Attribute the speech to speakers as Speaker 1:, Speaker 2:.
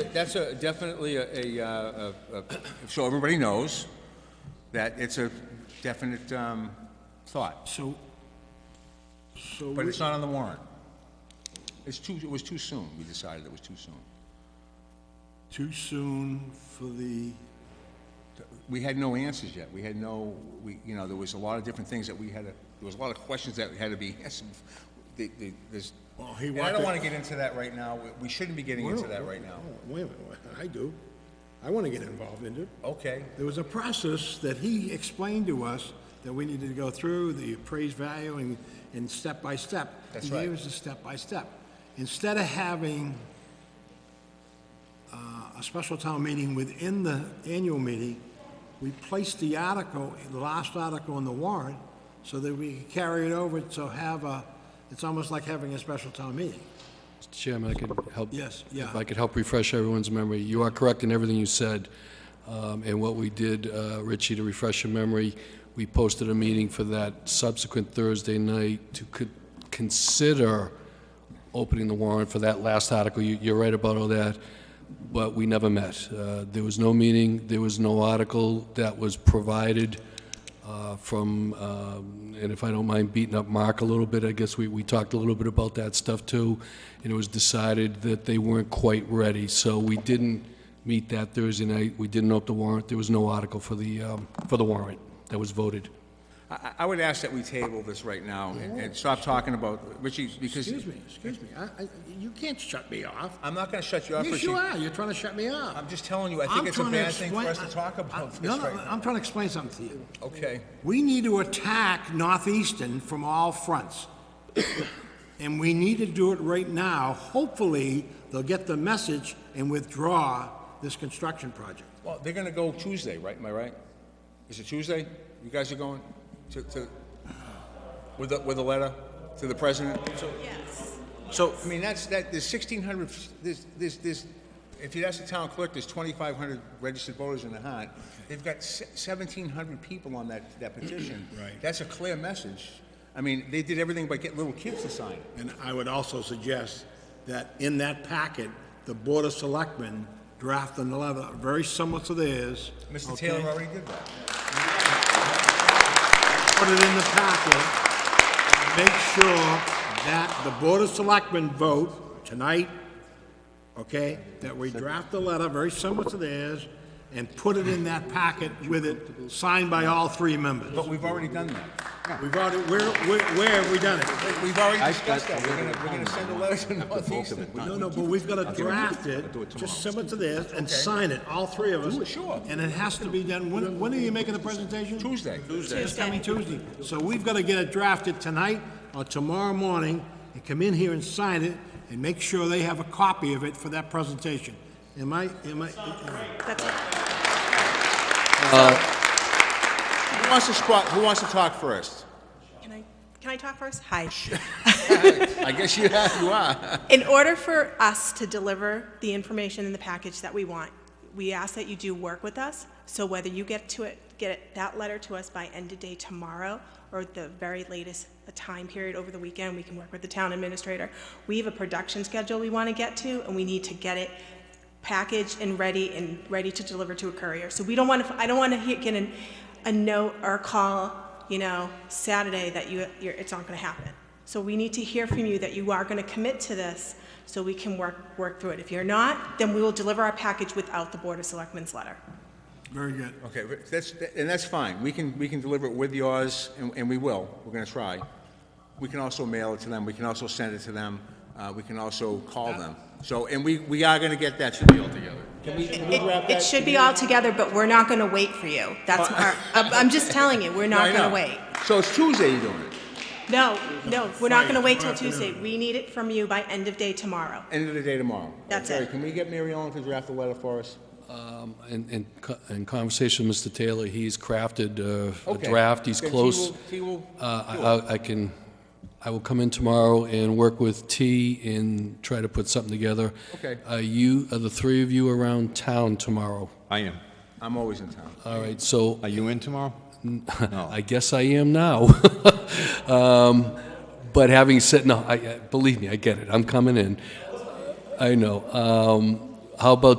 Speaker 1: that, that's a, definitely a, a, uh, a, a, so everybody knows that it's a definite, um, thought,
Speaker 2: So, so,
Speaker 1: but
Speaker 2: we-
Speaker 1: it's not on the warrant. It's too, it was too soon, we decided it was too soon.
Speaker 2: too soon for the,
Speaker 1: We had no answers yet, we had no, we, you know, there was a lot of different things that we had to, there was a lot of questions that had to be answered. The, the, this,
Speaker 2: Well, he
Speaker 1: and I don't
Speaker 2: wanted-
Speaker 1: wanna get into that right now, We- we shouldn't be getting into that right now.
Speaker 2: oh, Wait a minute, I do. I want to get involved in it.
Speaker 1: Okay,
Speaker 2: There was a process that he explained to us that we needed to go through, the appraised value and, and step by step.
Speaker 1: That's
Speaker 2: He
Speaker 1: right.
Speaker 2: gave us a step by step. Instead of having uh, a special town meeting within the annual meeting, we placed the article, the last article in the warrant, so that we could carry it over to have a, it's almost like having a special town meeting.
Speaker 3: Mr. Chairman, I could help.
Speaker 2: Yes, yeah.
Speaker 3: If I could help refresh everyone's memory, you are correct in everything you said. Um, And what we did, uh, Richie, to refresh your memory, we posted a meeting for that subsequent Thursday night to co- consider opening the warrant for that last article. You- You're right about all that, but we never met. Uh, There was no meeting, there was no article that was provided uh, from, um, and if I don't mind beating up Mark a little bit, I guess we, we talked a little bit about that stuff too, and it was decided that they weren't quite ready, so we didn't meet that Thursday night, we didn't open the warrant, there was no article for the, um, for the warrant that was voted.
Speaker 1: I, I- I would ask that we table this right now and, and stop talking about, Richie, because
Speaker 2: Excuse me, excuse me, I, I, you can't shut me off.
Speaker 1: I'm not gonna shut you up,
Speaker 2: Yes,
Speaker 1: Richie.
Speaker 2: you are, you're trying to shut me up.
Speaker 1: I'm just telling you, I think
Speaker 2: I'm
Speaker 1: it's a
Speaker 2: trying to
Speaker 1: bad thing for
Speaker 2: explain-
Speaker 1: us to talk
Speaker 2: I-
Speaker 1: about this
Speaker 2: No, no,
Speaker 1: right now.
Speaker 2: I'm trying to explain something to you.
Speaker 1: Okay,
Speaker 2: We need to attack Northeastern from all fronts. And we need to do it right now. Hopefully, they'll get the message and withdraw this construction project.
Speaker 1: well, they're gonna go Tuesday, right, am I right? Is it Tuesday? You guys are going to, to, with a, with a letter to the president?
Speaker 4: Yes.
Speaker 1: So, I mean, that's, that, there's sixteen hundred, there's, there's, there's, if you ask the town clerk, there's twenty-five hundred registered voters in the hunt. They've got seventeen hundred people on that, that petition. Right. That's a clear message. I mean, they did everything but get little kids to sign it.
Speaker 2: And I would also suggest that in that packet, the Board of Selectmen draft another, very similar to theirs.
Speaker 1: Mr.
Speaker 2: okay?
Speaker 1: Taylor already did that.
Speaker 2: put it in the packet, make sure that the Board of Selectmen vote tonight, okay, that we draft a letter very similar to theirs, and put it in that packet with it, signed by all three members.
Speaker 1: But we've already done that.
Speaker 2: We've already, where, where, where have we done it?
Speaker 1: We've already
Speaker 5: I've
Speaker 1: discussed
Speaker 5: got
Speaker 1: that. We're gonna,
Speaker 5: a
Speaker 1: we're gonna
Speaker 5: little
Speaker 1: send a letter to
Speaker 5: comment on the bulk of
Speaker 1: Northeastern.
Speaker 5: it.
Speaker 2: No, no, but we've gotta draft it,
Speaker 5: I'll do it
Speaker 2: just
Speaker 5: tomorrow.
Speaker 2: similar to theirs, and sign it, all three of us.
Speaker 1: it, sure.
Speaker 2: And it has to be done, when, when are you making the presentation?
Speaker 1: Tuesday. Tuesday.
Speaker 2: It's coming Tuesday. So we've got to get it drafted tonight or tomorrow morning and come in here and sign it and make sure they have a copy of it for that presentation. Am I, am I,
Speaker 4: That's it.
Speaker 1: Who wants to squat, who wants to talk first?
Speaker 4: Can I, can I talk first? Hi.
Speaker 1: I guess you have, you are.
Speaker 4: In order for us to deliver the information in the package that we want, we ask that you do work with us. So whether you get to it, get it- that letter to us by end of day tomorrow or at the very latest a time period over the weekend, we can work with the town administrator. We have a production schedule we want to get to and we need to get it packaged and ready and ready to deliver to a courier. So we don't want to, I don't want to get an, a note or a call, you know, Saturday that you, you're, it's not going to happen. So we need to hear from you that you are going to commit to this so we can work, work through it. If you're not, then we will deliver our package without the Board of Selectmen's letter.
Speaker 2: very good.
Speaker 1: Okay, but that's, and that's fine. We can, we can deliver it with yours, and, and we will. We're gonna try. We can also mail it to them. We can also send it to them. Uh, we can also call them. So, and we, we are gonna get that to deal together. Can we, can we wrap
Speaker 4: It,
Speaker 1: that?
Speaker 4: it should be all together, but we're not going to wait for you. That's our, I'm I'm just telling you, we're
Speaker 1: No, I
Speaker 4: not going
Speaker 1: know.
Speaker 4: to wait.
Speaker 1: So it's Tuesday you're doing it,
Speaker 4: No, no, we're not going to
Speaker 2: Friday,
Speaker 4: wait till
Speaker 2: afternoon.
Speaker 4: Tuesday. We need it from you by end of day tomorrow.
Speaker 1: end of the day tomorrow.
Speaker 4: That's
Speaker 1: Terry,
Speaker 4: it.
Speaker 1: Can we get Mary Ellen to draft a letter for us?
Speaker 3: Um, In, in co- in conversation with Mr. Taylor, he's crafted uh, a
Speaker 1: Okay.
Speaker 3: draft, he's
Speaker 1: Then he
Speaker 3: close.
Speaker 1: will- he will
Speaker 3: Uh, I- I I can, I will come in tomorrow and work with T and try to put something together.
Speaker 1: Okay.
Speaker 3: Are you, are the three of you around town tomorrow?
Speaker 5: I am.
Speaker 1: I'm always in town.
Speaker 3: All right, so
Speaker 5: Are you in tomorrow? No.
Speaker 3: I guess I am now. Um, But having said, no, I, I- believe me, I get it, I'm coming in. I know. Um, How about